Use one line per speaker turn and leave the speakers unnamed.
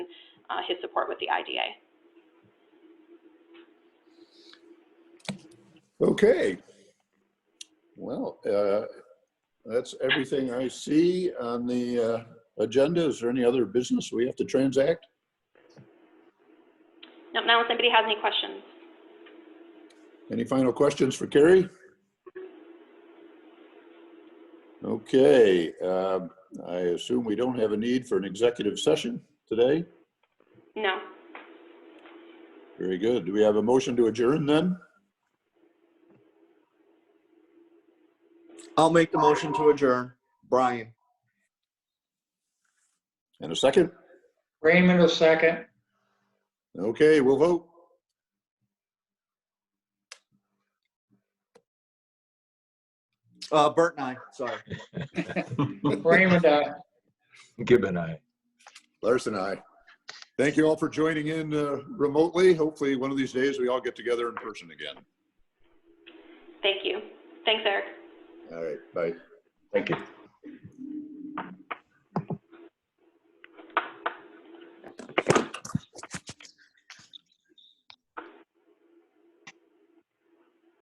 uh, his support with the IDA.
Okay. Well, uh, that's everything I see on the uh, agenda. Is there any other business we have to transact?
Nope, now if anybody has any questions.
Any final questions for Carrie? Okay, um, I assume we don't have a need for an executive session today?
No.
Very good. Do we have a motion to adjourn then?
I'll make the motion to adjourn. Brian.
And a second?
Raymond, a second.
Okay, we'll vote.
Uh, Bert and I, sorry.
Raymond, uh, aye.
Gibbon, I.
Larson, I. Thank you all for joining in uh, remotely. Hopefully, one of these days, we all get together in person again.
Thank you. Thanks, Eric.
All right, bye.
Thank you.